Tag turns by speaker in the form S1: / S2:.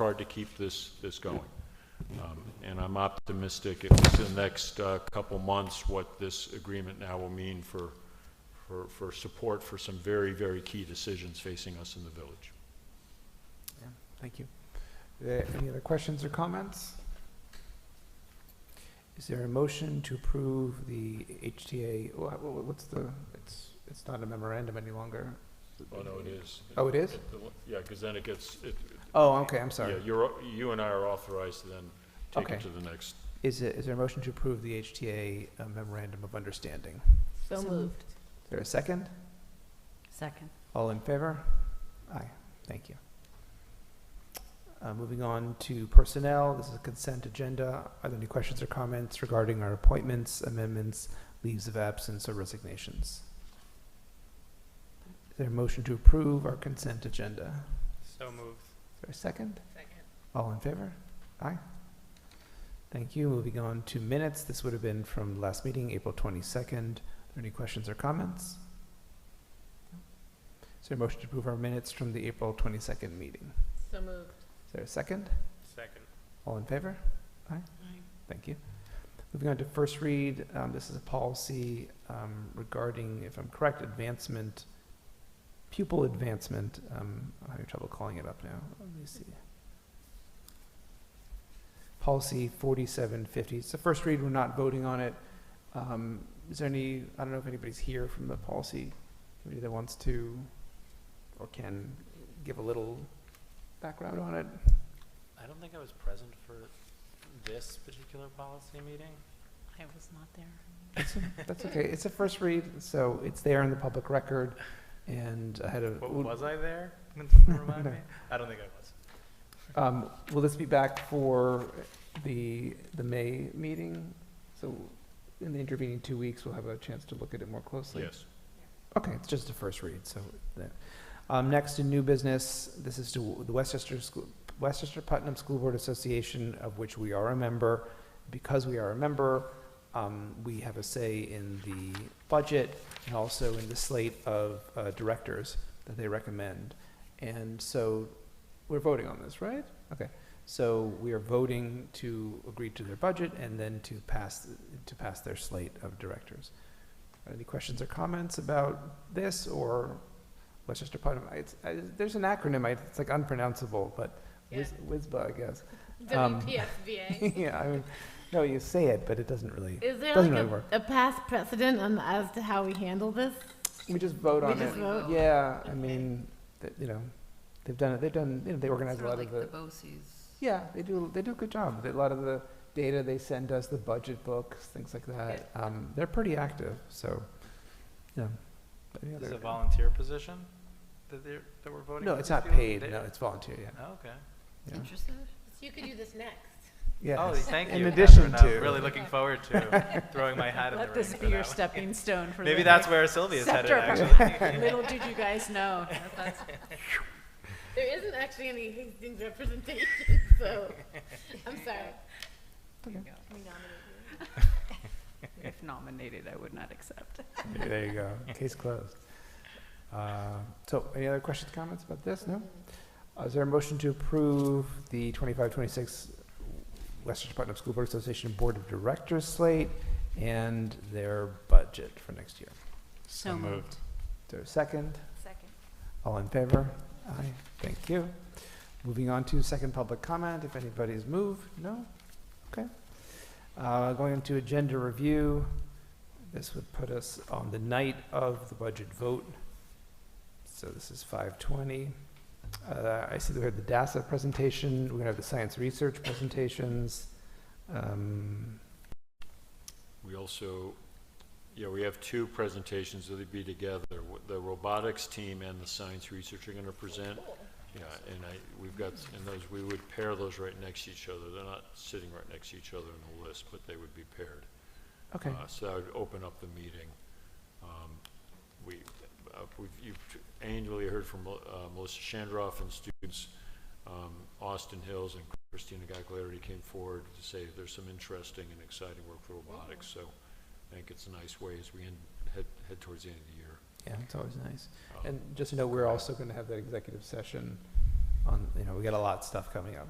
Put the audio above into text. S1: hard to keep this, this going. Um, And I'm optimistic, at least in the next uh, couple months, what this agreement now will mean for, for, for support for some very, very key decisions facing us in the village.
S2: Thank you. Are there Any other questions or comments? Is there a motion to approve the HTA, wha- wha- what's the, it's, it's not a memorandum any longer.
S1: Oh, no, it is.
S2: Oh, it is?
S1: Yeah, because then it gets, it,
S2: Oh, okay, I'm
S1: yeah,
S2: sorry.
S1: you're, you and I are authorized to then take it
S2: Okay.
S1: to the next.
S2: Is it, is there a motion to approve the HTA uh, memorandum of understanding?
S3: So moved.
S2: Is there a second?
S3: Second.
S2: All in favor? Aye, thank you. Uh, moving on to personnel, this is a consent agenda. Are there any questions or comments regarding our appointments, amendments, leaves of absence, or resignations? Is there a motion to approve our consent agenda?
S4: So moved.
S2: Is there a second?
S4: Second.
S2: All in favor? Aye. Thank you. Moving on to minutes, this would have been from the last meeting, April twenty-second. Are there any questions or comments? Is there a motion to approve our minutes from the April twenty-second meeting?
S3: So moved.
S2: Is there a second?
S4: Second.
S2: All in favor? Thank you. Moving on to first read, um, this is a policy, um, regarding, if I'm correct, advancement, pupil advancement, um, I'm having trouble calling it up now, let me see. Policy forty-seven fifty, it's the first read, we're not voting on it. Um, is there any, I don't know if anybody's here from the policy committee that wants to, or can give a little background on it?
S4: I don't think I was present for this particular policy meeting.
S3: I was not there.
S2: That's okay. It's a first read, so it's there in the public record. And I had a,
S4: But
S2: would-
S4: was I there? Can someone Remind me? I don't think I was.
S2: um, will this be back for the, the May meeting? So in the intervening two weeks, we'll have a chance to look at it more closely.
S1: Yes.
S2: Okay, it's just a first read, so that. Um, next in new business, this is to the Westchester School, Westchester Putnam School Board Association, of which we are a member. Because we are a member, um, we have a say in the budget and also in the slate of, uh, directors that they recommend. And so we're voting on this, right? Okay, so we are voting to agree to their budget and then to pass, to pass their slate of directors. Any questions or comments about this or Westchester Putnam? It's, I, there's an acronym, I- it's like unpronounceable, but whiz, WISBA, I guess. Um,
S3: WPSBA.
S2: Yeah, I mean, no, you say it, but it doesn't really,
S3: Is there
S2: Doesn't
S3: like
S2: really
S3: a,
S2: work.
S3: a past precedent on, as to how we handle this?
S2: we just vote
S3: We
S2: on
S3: just
S2: it.
S3: vote?
S2: Yeah, I
S3: Okay.
S2: mean, th- you know, they've done it, they've done, you know, they organize a lot of the. Yeah, they do, they do a good job. They- A lot of the data they send us, the budget books, things like that. Um, they're pretty active, so, yeah. Any
S4: This is
S2: other-
S4: a volunteer position that they're, that we're voting?
S2: No,
S4: for
S2: it's
S4: these
S2: not
S4: people?
S2: paid,
S4: They-
S2: no, it's volunteer, yeah.
S4: Oh, Okay.
S2: yeah.
S3: You could do this next.
S4: Oh,
S2: Yes.
S4: thank
S2: In
S4: you,
S2: addition
S4: Catherine. I'm
S2: to-
S4: Really looking forward to throwing my hat in the ring
S5: Let this
S4: for
S5: be your
S4: that one.
S5: stepping stone for the.
S4: Maybe that's where Sylvia's headed,
S5: Scepter.
S4: actually.
S5: Little did you guys know.
S3: There isn't actually any Hastings representation, so, I'm sorry. We nominate you.
S5: If nominated, I would not accept.
S2: There you go. Case closed. Uh, So any other questions, comments about this? No? Uh, Is there a motion to approve the 25-26 Westchester Putnam School Board Association Board of Directors slate and their budget for next year?
S5: So moved.
S2: Is there a second?
S3: Second.
S2: All in favor? Aye. Thank you. Moving on to second public comment, if anybody's moved, no? Okay. Uh, Going into agenda review, this would put us on the night of the budget vote. So this is 5:20. Uh, I see we have the DASSA presentation, we're gonna have the science research presentations. Um,
S1: We also, yeah, we have two presentations that'll be together. W- The robotics team and the science research are going to present. Yeah, and I, we've got, and those, we would pair those right next to each other. They're not sitting right next to each other in a list, but they would be paired.
S2: Okay,
S1: Uh, So that would open up the meeting. Um, We, uh, we've, you've annually heard from uh, Melissa Shandroff and students, um, Austin Hills and Christina Gagliardi came forward to say there's some interesting and exciting work for robotics, so I think it's a nice way as we end, head, head towards the end of the year.
S2: yeah, it's always nice.
S1: Um,
S2: And just to know, we're also gonna have that executive session on, you know, we got a lot of stuff coming up.